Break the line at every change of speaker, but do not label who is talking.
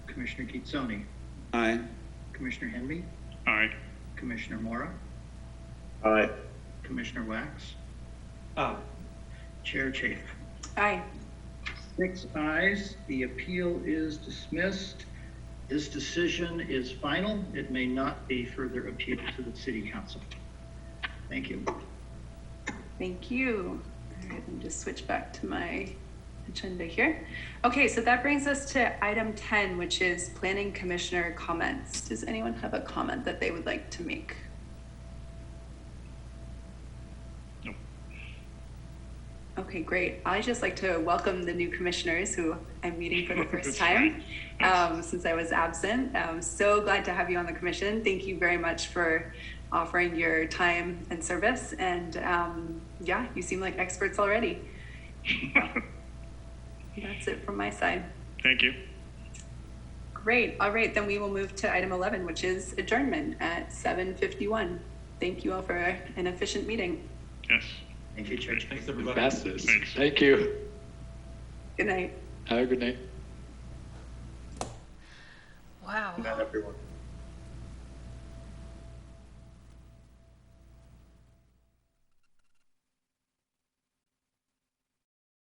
Commissioner Kitzoni,
Aye.
Commissioner Henley,
Aye.
Commissioner Mora,
Aye.
Commissioner Wax,
Aye.
Chair Chafe.
Aye.
Six ayes, the appeal is dismissed. This decision is final. It may not be further appealed to the city council. Thank you.
Thank you. All right, let me just switch back to my agenda here. Okay, so that brings us to item 10, which is planning commissioner comments. Does anyone have a comment that they would like to make?
No.
Okay, great. I'd just like to welcome the new commissioners who I'm meeting for the first time um, since I was absent. I'm so glad to have you on the commission. Thank you very much for offering your time and service. And um, yeah, you seem like experts already. That's it from my side.
Thank you.
Great. All right, then we will move to item 11, which is adjournment at 7:51. Thank you all for an efficient meeting.
Yes.
Thank you, Chair Chafe.
Thanks, everybody.
Fastest.
Thanks.
Thank you.
Good night.
Have a good night.
Wow.
Not everyone.